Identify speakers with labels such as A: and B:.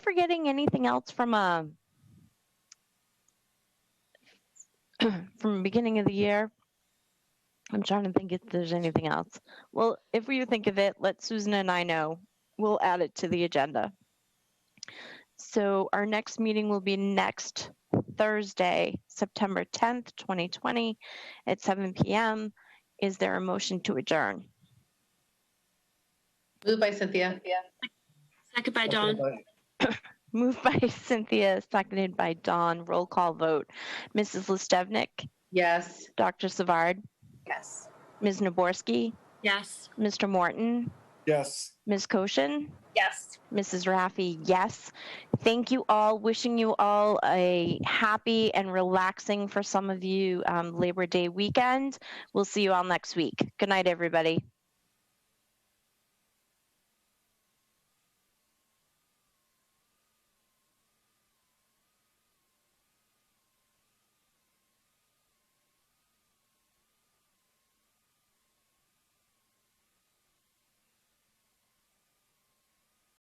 A: forgetting anything else from um, a from the beginning of the year? I'm trying to think if there's anything else. Well, if we think of it, let Susan and I know. We'll add it to the agenda. So our next meeting will be next Thursday, September 10th, 2020 at 7 p.m. Is there a motion to adjourn?
B: Moved by Cynthia.
C: Second by
D: Seconded
C: Dawn.
D: by-
A: Moved by Cynthia, seconded by Dawn. Roll call vote. Mrs. Listevnik,
B: Yes.
A: Dr. Savard,
B: Yes.
A: Ms. Naborski,
C: Yes.
A: Mr. Morton,
D: Yes.
A: Ms. Koshin,
B: Yes.
A: Mrs. Raffi, yes. Thank you all. Wishing you all a happy and relaxing for some of you um, Labor Day weekend. We'll see you all next week. Good night, everybody.